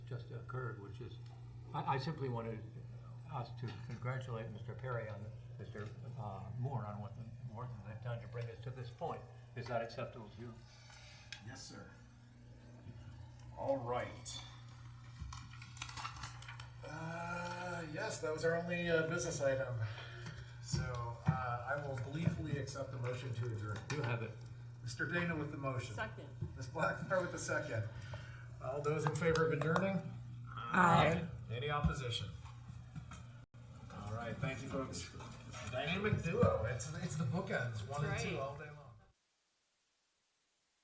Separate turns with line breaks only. occurred, which is, I, I simply wanted us to congratulate Mr. Perry on, Mr. uh, Moore on what the, work that they've done to bring us to this point. Is that acceptable to you?
Yes, sir. All right. Uh, yes, that was our only uh, business item. So uh, I will gleefully accept the motion to adjourn.
You have it.
Mr. Dana with the motion.
Second.
Ms. Blackmore with the second. All those in favor of adjourning?
Aye.
Any opposition? All right, thank you, folks. Dynamic duo. It's it's the bookends, one and two
right.
all day long.